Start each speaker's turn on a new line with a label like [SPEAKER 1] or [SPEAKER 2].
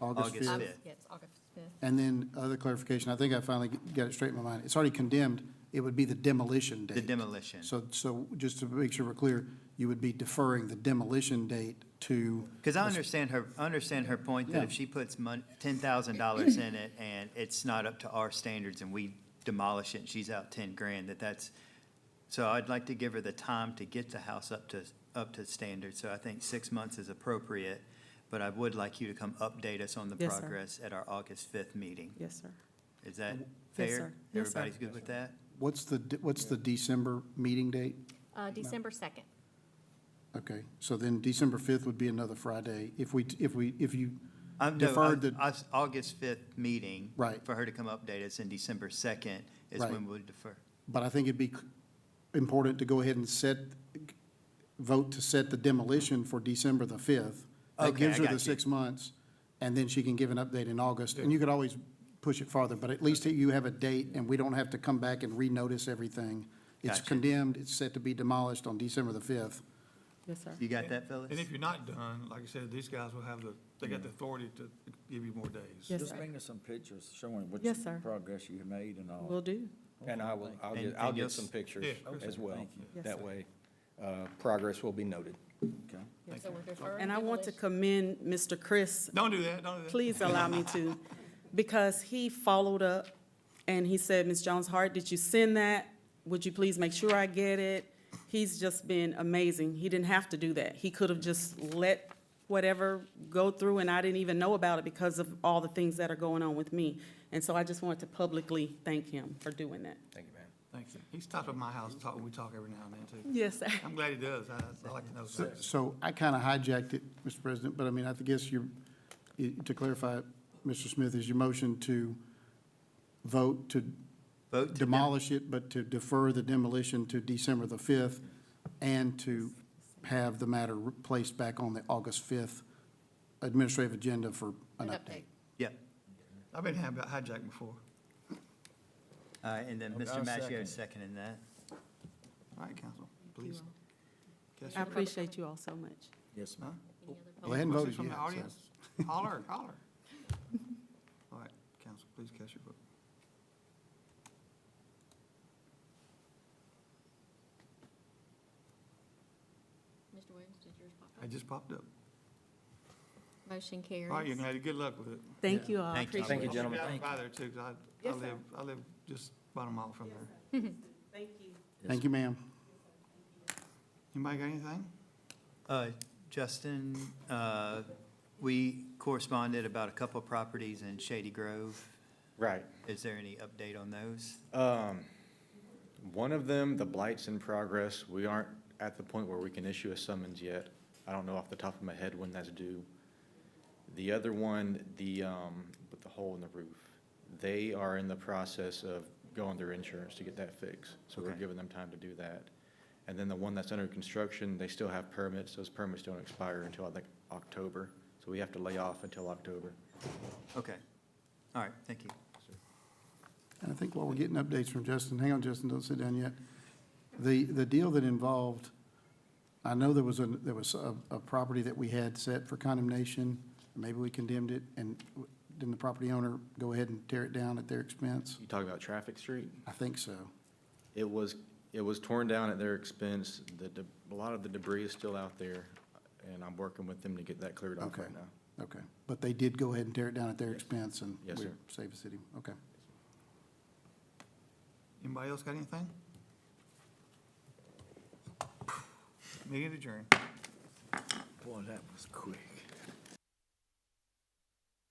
[SPEAKER 1] August
[SPEAKER 2] August
[SPEAKER 1] 5th.
[SPEAKER 2] fifth.
[SPEAKER 3] Yeah, it's August 5th.
[SPEAKER 1] And then other clarification, I think I finally got it straight in my mind. It's already condemned, it would be the demolition date.
[SPEAKER 2] The demolition.
[SPEAKER 1] So, so just to make sure we're clear, you would be deferring the demolition date to,
[SPEAKER 2] Because I understand her, I understand her point that if
[SPEAKER 1] Yeah.
[SPEAKER 2] she puts mon, ten thousand dollars in it and it's not up to our standards and we demolish it and she's out ten grand, that that's, so I'd like to give her the time to get the house up to, up to standard. So I think six months is appropriate, but I would like you to come update us on the
[SPEAKER 4] Yes, sir.
[SPEAKER 2] progress at our August fifth meeting.
[SPEAKER 4] Yes, sir.
[SPEAKER 2] Is that fair?
[SPEAKER 4] Yes, sir. Yes, sir.
[SPEAKER 2] Everybody's good with that?
[SPEAKER 1] what's the, de- what's the December meeting date?
[SPEAKER 3] Uh, December 2nd.
[SPEAKER 1] Okay, so then December 5th would be another Friday. If we, if we, if you,
[SPEAKER 2] I'm, Uh, no,
[SPEAKER 1] Deferred
[SPEAKER 2] I-
[SPEAKER 1] the-
[SPEAKER 2] I- August fifth meeting.
[SPEAKER 1] Right.
[SPEAKER 2] For her to come update us and December second is
[SPEAKER 1] Right.
[SPEAKER 2] when we'll defer.
[SPEAKER 1] but I think it'd be important to go ahead and set, vote to set the demolition for December the 5th. That
[SPEAKER 2] Okay, I
[SPEAKER 1] gives her
[SPEAKER 2] got you.
[SPEAKER 1] the six months, and then she can give an update in August. And you could always push it farther, but at least you have a date, and we don't have to come back and renotice everything. It's
[SPEAKER 2] Gotcha.
[SPEAKER 1] condemned, it's set to be demolished on December the 5th.
[SPEAKER 4] Yes, sir.
[SPEAKER 2] You got that, Phyllis?
[SPEAKER 5] And if you're not done, like I said, these guys will have the, they got the authority to give you more days.
[SPEAKER 4] Yes,
[SPEAKER 6] Just
[SPEAKER 4] sir.
[SPEAKER 6] bring us some pictures showing what
[SPEAKER 4] Yes, sir.
[SPEAKER 6] progress you made and all.
[SPEAKER 4] Will do.
[SPEAKER 7] And I will, I'll get,
[SPEAKER 2] And-
[SPEAKER 7] I'll
[SPEAKER 2] and
[SPEAKER 7] get
[SPEAKER 2] yes.
[SPEAKER 7] some pictures
[SPEAKER 5] Yeah,
[SPEAKER 7] as well.
[SPEAKER 6] Thank you.
[SPEAKER 4] Yes,
[SPEAKER 7] That
[SPEAKER 4] sir.
[SPEAKER 7] way, uh, progress will be noted.
[SPEAKER 6] Okay.
[SPEAKER 3] So we're deferring
[SPEAKER 4] And I want to
[SPEAKER 3] demolition.
[SPEAKER 4] commend Mr. Chris.
[SPEAKER 5] Don't do that, don't do that.
[SPEAKER 4] Please allow me to, because he followed up and he said, Ms. Jones Hart, did you send that? Would you please make sure I get it? He's just been amazing. He didn't have to do that. He could have just let whatever go through and I didn't even know about it because of all the things that are going on with me. And so I just wanted to publicly thank him for doing that.
[SPEAKER 7] Thank you, ma'am.
[SPEAKER 5] Thank you. He stops at my house and talk, we talk every now and then too.
[SPEAKER 4] Yes, sir.
[SPEAKER 5] I'm glad he does. I, I like to know
[SPEAKER 1] So-
[SPEAKER 5] that.
[SPEAKER 1] So I kind of hijacked it, Mr. President, but I mean, I guess you, to clarify, Mr. Smith, is your motion to vote to
[SPEAKER 2] Vote to dem-
[SPEAKER 1] demolish it, but to defer the demolition to December the 5th and to have the matter placed back on the August 5th administrative agenda for an
[SPEAKER 3] An
[SPEAKER 1] update.
[SPEAKER 3] update.
[SPEAKER 2] Yep.
[SPEAKER 5] I've been had- hijacked before.
[SPEAKER 2] All right, uh, and then
[SPEAKER 6] Okay,
[SPEAKER 2] Mr.
[SPEAKER 6] I'll
[SPEAKER 2] Maggio
[SPEAKER 6] second.
[SPEAKER 2] seconding that.
[SPEAKER 5] All right, council, please. Yes,
[SPEAKER 4] I
[SPEAKER 5] sir.
[SPEAKER 4] appreciate you all so much.
[SPEAKER 6] Yes,
[SPEAKER 5] Huh?
[SPEAKER 6] ma'am.
[SPEAKER 3] Any other
[SPEAKER 1] Go ahead and vote
[SPEAKER 5] Questions
[SPEAKER 1] again.
[SPEAKER 5] from the audience? Holler, holler. All right, council, please cast your vote.
[SPEAKER 3] vote? Mr. Williams, did yours pop
[SPEAKER 5] I
[SPEAKER 3] up?
[SPEAKER 5] just popped up.
[SPEAKER 3] Motion
[SPEAKER 5] All right, young
[SPEAKER 3] carries.
[SPEAKER 5] lady, good luck with it.
[SPEAKER 4] Thank you all.
[SPEAKER 2] Thank you.
[SPEAKER 4] Appreciate
[SPEAKER 7] Thank
[SPEAKER 4] it.
[SPEAKER 7] you, gentlemen.
[SPEAKER 5] I'll By there too, 'cause I, I
[SPEAKER 4] Yes, sir.
[SPEAKER 5] live, I live just about a mile from there.
[SPEAKER 4] Thank you.
[SPEAKER 1] Thank you, ma'am.
[SPEAKER 5] Anybody got anything?
[SPEAKER 2] Uh, Justin, uh, we corresponded about a couple properties in Shady Grove.
[SPEAKER 7] Right.
[SPEAKER 2] Is there any update on those?
[SPEAKER 7] Um, One of them, the blight's in progress. We aren't at the point where we can issue a summons yet. I don't know off the top of my head when that's due. The other one, the, um, with the hole in the roof, they are in the process of going through insurance to get that fixed. So we're
[SPEAKER 2] Okay.
[SPEAKER 7] giving them time to do that. And then the one that's under construction, they still have permits. Those permits don't expire until, I think, October. So we have to lay off until October.
[SPEAKER 2] Okay. All right, thank you.
[SPEAKER 1] And I think while we're getting updates from Justin, hang on, Justin, don't sit down yet. The, the deal that involved, I know there was a, there was a, a property that we had set for condemnation. Maybe we condemned it, and didn't the property owner go ahead and tear it down at their expense?
[SPEAKER 7] You talk about Traffic Street?
[SPEAKER 1] I think so.
[SPEAKER 7] It was, it was torn down at their expense. The, de- a lot of the debris is still out there, and I'm working with them to get that cleared off right
[SPEAKER 1] Okay.
[SPEAKER 7] now.
[SPEAKER 1] Okay, but they did go ahead and tear it down at their expense and
[SPEAKER 7] Yes,
[SPEAKER 1] we
[SPEAKER 7] sir.
[SPEAKER 1] saved the city, okay.
[SPEAKER 5] Anybody else got anything? Meeting adjourned.
[SPEAKER 6] Boy, that was quick.